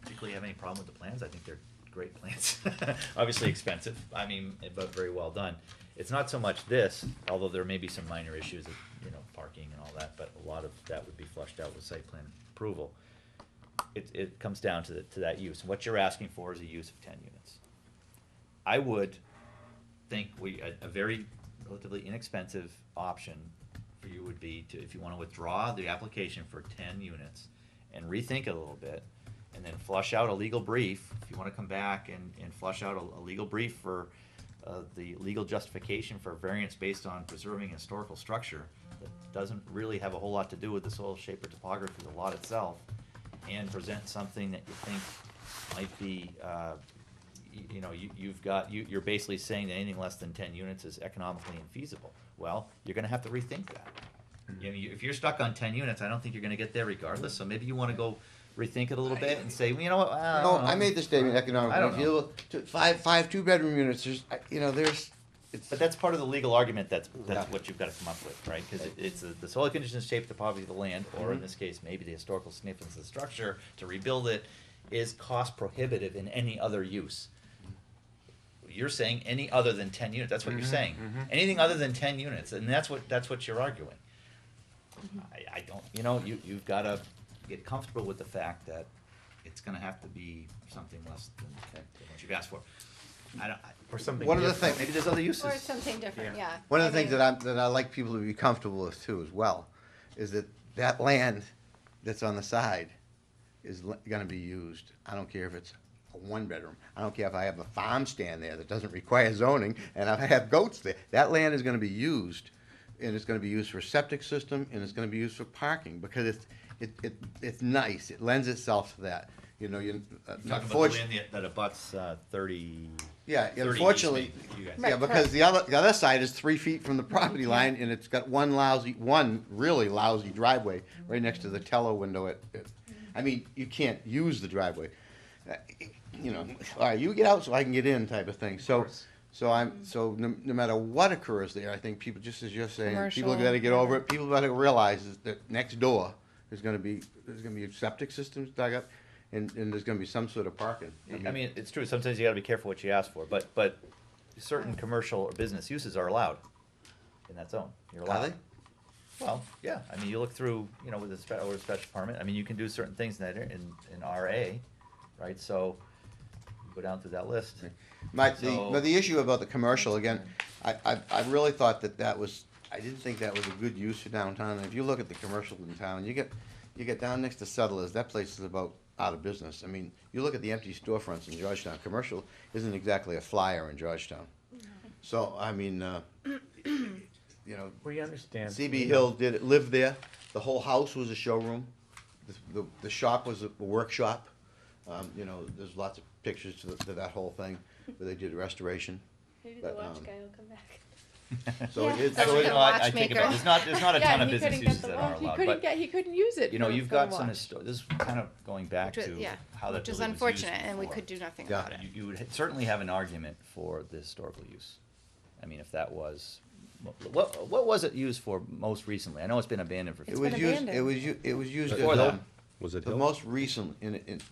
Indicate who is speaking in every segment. Speaker 1: particularly have any problem with the plans. I think they're great plans. Obviously expensive, I mean, but very well done. It's not so much this, although there may be some minor issues, of, you know, parking and all that, but a lot of that would be flushed out with site plan approval. It, it comes down to the, to that use. What you're asking for is a use of ten units. I would think we, a, a very relatively inexpensive option for you would be to, if you wanna withdraw the application for ten units and rethink it a little bit, and then flush out a legal brief, if you wanna come back and, and flush out a, a legal brief for, uh, the legal justification for variance based on preserving historical structure that doesn't really have a whole lot to do with the soil shape or topography of the lot itself, and present something that you think might be, uh, y- you know, you, you've got, you, you're basically saying that anything less than ten units is economically infeasible. Well, you're gonna have to rethink that. You know, you- if you're stuck on ten units, I don't think you're gonna get there regardless, so maybe you wanna go rethink it a little bit and say, you know what, I
Speaker 2: No,
Speaker 1: don't know."
Speaker 2: I made the statement economically.
Speaker 1: Um, I don't
Speaker 2: If you
Speaker 1: know.
Speaker 2: look to five, five two-bedroom units, there's, I- you know, there's, it's,
Speaker 1: But that's part of the legal argument, that's, that's
Speaker 2: Yeah.
Speaker 1: what you've gotta come up with, right? Cause it- it's the- the soil conditions, shape, the poverty of the land, or in
Speaker 2: Mhm.
Speaker 1: this case, maybe the historical significance of the structure, to rebuild it, is cost prohibitive in any other use. You're saying any other than ten units, that's what you're
Speaker 3: Mhm,
Speaker 1: saying,
Speaker 3: mhm.
Speaker 1: anything other than ten units, and that's what, that's what you're arguing. I, I don't, you know, you, you've gotta get comfortable with the fact that it's gonna have to be something less than than what you've asked for. I don't, I-
Speaker 3: Or something
Speaker 2: One of the
Speaker 3: different.
Speaker 2: thing-
Speaker 1: maybe there's other uses.
Speaker 4: Or something different,
Speaker 3: Yeah.
Speaker 4: yeah.
Speaker 2: one of
Speaker 4: I
Speaker 2: the things
Speaker 4: mean,
Speaker 2: that I'm, that I like people to be comfortable with too as well, is that that land that's on the side is l- gonna be used. I don't care if it's a one-bedroom. I don't care if I have a farm stand there that doesn't require zoning and I have goats there. That land is gonna be used and it's gonna be used for septic system and it's gonna be used for parking because it's, it, it, it's nice. It lends itself to that. You know, you, uh,
Speaker 1: You're Talking about the
Speaker 2: unfortunately-
Speaker 1: land that- that abuts uh, thirty.
Speaker 2: Yeah,
Speaker 1: 30
Speaker 2: unfortunately,
Speaker 1: easement, you guys.
Speaker 2: yeah,
Speaker 4: Right,
Speaker 2: because
Speaker 4: right.
Speaker 2: the other, the other side is three feet from the property line, and it's got one lousy, one really lousy driveway right next to the tello window at, at- I mean, you can't use the driveway. Uh, You know, all right, you get out so I can get in type of thing, so,
Speaker 1: course.
Speaker 2: so
Speaker 4: Mm-hmm.
Speaker 2: I'm, so no, no matter what occurs there, I think people, just as you're saying, people
Speaker 4: Commercial,
Speaker 2: gotta get
Speaker 4: yeah.
Speaker 2: over it, people gotta realize is that next door is gonna be, there's gonna be septic systems dug up, and, and there's gonna be some sort of parking.
Speaker 1: I mean, it's true, sometimes you gotta be careful what you ask for, but, but certain commercial or business uses are allowed in that zone. You're
Speaker 2: Are
Speaker 1: allowed.
Speaker 2: they?
Speaker 1: Well, yeah, I mean, you look through, you know, with a spe- with a special permit, I mean, you can do certain things in that, ar- in, in RA, right, so go down through that list.
Speaker 2: My, the,
Speaker 1: So-
Speaker 2: but the issue about the commercial, again, I, I, I really thought that that was, I didn't think that was a good use for downtown, and if you look at the commercial in town, you get, you get down next to Settlers, that place is about out of business, I mean, you look at the empty storefronts in Georgetown, commercial isn't exactly a flyer in Georgetown. So, I mean, uh, you know,
Speaker 3: We understand.
Speaker 2: CB Hill did, lived there, the whole house was a showroom, The- the, the shop was a workshop. Um, you know, there's lots of pictures to, the- to that whole thing, where they did restoration.
Speaker 5: Maybe
Speaker 2: But,
Speaker 5: the watch
Speaker 2: um,
Speaker 5: guy will come back.
Speaker 2: So
Speaker 4: Yeah.
Speaker 2: it is,
Speaker 4: That's
Speaker 2: so
Speaker 1: So, you
Speaker 4: what the
Speaker 2: it,
Speaker 1: know, I, I think
Speaker 4: watchmaker-
Speaker 1: about, there's not, there's not a ton
Speaker 4: Yeah,
Speaker 1: of
Speaker 4: he
Speaker 1: business
Speaker 4: couldn't get
Speaker 1: uses
Speaker 4: the
Speaker 1: that
Speaker 4: law,
Speaker 1: are
Speaker 4: he
Speaker 1: allowed,
Speaker 4: couldn't
Speaker 1: but,
Speaker 4: get, he couldn't use it.
Speaker 1: you know,
Speaker 4: for-
Speaker 1: you've
Speaker 4: for a
Speaker 1: got some,
Speaker 4: watch.
Speaker 1: histo- this is kind of going back
Speaker 4: Which was-
Speaker 1: to
Speaker 4: yeah,
Speaker 1: how that
Speaker 4: Which is
Speaker 1: building was used
Speaker 4: unfortunate, and we
Speaker 1: before.
Speaker 4: could do nothing
Speaker 2: Yeah.
Speaker 4: about it.
Speaker 1: You, you would certainly have an argument for the historical use. I mean, if that was, what, what was it used for most recently? I know it's been abandoned for.
Speaker 4: It's
Speaker 2: it
Speaker 1: 50
Speaker 2: was
Speaker 4: been
Speaker 2: used, it
Speaker 4: abandoned.
Speaker 2: was u- it was used as
Speaker 1: Before that.
Speaker 2: a,
Speaker 6: Was it
Speaker 2: the
Speaker 6: Hill?
Speaker 2: most recent, in, in,
Speaker 4: It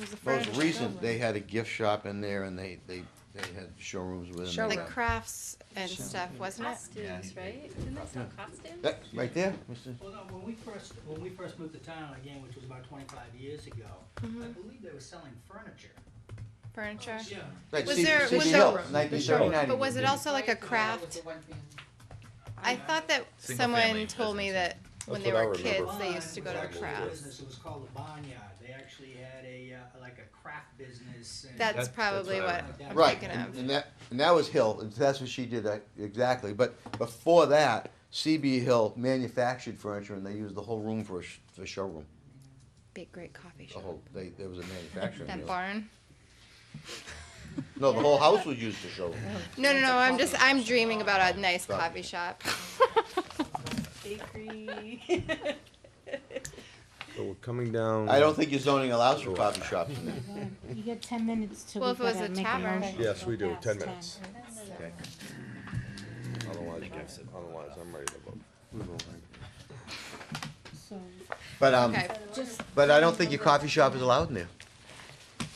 Speaker 4: was
Speaker 2: most
Speaker 4: the furniture
Speaker 2: recent,
Speaker 4: showroom.
Speaker 2: they had a gift shop in there and they, they, they had showrooms within.
Speaker 4: The
Speaker 2: there.
Speaker 4: crafts and
Speaker 1: Showroom.
Speaker 4: stuff, wasn't it?
Speaker 5: Costumes, right? Isn't that some costumes?
Speaker 2: That, right there, Mr.
Speaker 7: Well, no, when we first, when we first moved to town again, which was about twenty-five years ago, I believe they were selling furniture.
Speaker 4: Mm-hmm. Furniture.
Speaker 7: Yeah.
Speaker 2: Right,
Speaker 4: Was
Speaker 2: C-
Speaker 4: there-
Speaker 2: CB
Speaker 4: was
Speaker 2: Hill,
Speaker 4: there-
Speaker 2: 1979.
Speaker 4: But was it also like a
Speaker 7: Right, that was
Speaker 4: craft?
Speaker 7: the one thing.
Speaker 4: I thought that
Speaker 1: Single
Speaker 4: someone
Speaker 1: family
Speaker 4: told me that
Speaker 1: business.
Speaker 4: when
Speaker 6: That's
Speaker 4: they
Speaker 6: what I
Speaker 4: were kids,
Speaker 6: remember.
Speaker 4: they used to go to a
Speaker 7: Barn was actually a business.
Speaker 4: craft.
Speaker 7: It was called the Barnyard. They actually had a, uh, like a craft business. and-
Speaker 1: That-
Speaker 4: That's
Speaker 1: that's
Speaker 4: probably
Speaker 1: what I
Speaker 4: what
Speaker 7: remember.
Speaker 4: I'm
Speaker 2: Right,
Speaker 4: thinking
Speaker 2: and,
Speaker 4: of.
Speaker 2: and that, and that was Hill, and that's what she did, uh, exactly, but before that, CB Hill manufactured furniture and they used the whole room for a, sh- for showroom,
Speaker 4: Big great coffee
Speaker 2: the
Speaker 4: shop.
Speaker 2: whole, they, there was a manufacturing.
Speaker 4: That
Speaker 2: deal.
Speaker 4: barn.
Speaker 2: No, the whole house was used as showroom.
Speaker 4: No, no, no, I'm just, I'm dreaming about a nice coffee shop.
Speaker 5: Bakery.
Speaker 6: So we're coming down.
Speaker 2: I don't think your zoning allows for coffee shops in there.
Speaker 8: You get ten minutes to.
Speaker 4: Well, if it was a tavern.
Speaker 6: Yes, we do, ten minutes.
Speaker 2: Okay.
Speaker 6: Otherwise, otherwise, I'm ready to vote.
Speaker 2: But, um,
Speaker 4: Okay,
Speaker 8: Just
Speaker 2: but I don't think your coffee shop is allowed in there.